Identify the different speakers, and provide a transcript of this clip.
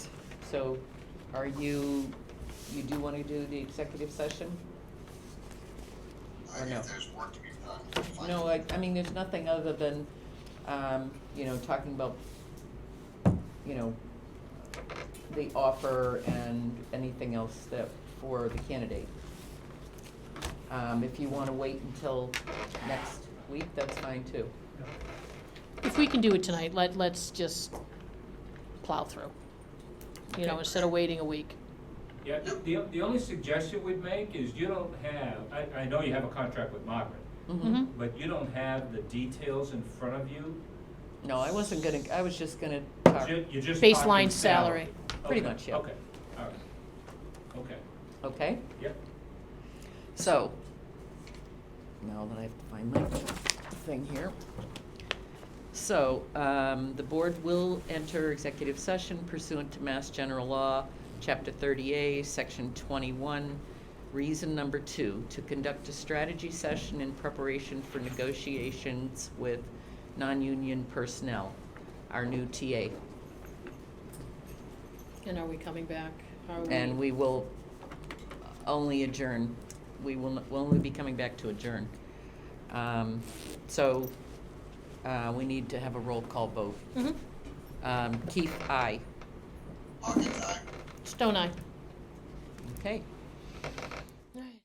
Speaker 1: so are you, you do want to do the executive session?
Speaker 2: I
Speaker 1: Or no?
Speaker 2: think there's work to be done. Fine.
Speaker 1: No, I, I mean, there's nothing other than, um, you know, talking about, you know, the offer and anything else that, for the candidate. Um, if you wanna wait until next week, that's fine too.
Speaker 3: If we can do it tonight, let, let's just plow through. You know,
Speaker 1: Okay.
Speaker 3: instead of waiting a week.
Speaker 4: Yeah, the, the only suggestion we'd make is you don't have, I, I know you have a contract with Margaret,
Speaker 3: Mm-hmm.
Speaker 4: but you don't have the details in front of you.
Speaker 1: No, I wasn't gonna, I was just gonna talk,
Speaker 4: Ju- You're just
Speaker 3: Baseline
Speaker 4: talking salary.
Speaker 3: salary.
Speaker 1: Pretty
Speaker 4: Okay,
Speaker 1: much, yeah.
Speaker 4: Okay, all right. Okay,
Speaker 1: okay?
Speaker 4: yep.
Speaker 1: So, now that I have to find my thing here. So, um, the board will enter executive session pursuant to Mass General Law, Chapter 30A, Section 21, reason number two, to conduct a strategy session in preparation for negotiations with non-union personnel, our new TA.
Speaker 3: And are we coming back? Are we?
Speaker 1: And we will only adjourn, we will, n- we'll only be coming back to adjourn. Um, So, uh, we need to have a roll call vote.
Speaker 3: Mhm.
Speaker 1: Um, Keith, aye.
Speaker 2: I'll get that.
Speaker 3: Stone Eye.
Speaker 1: Okay.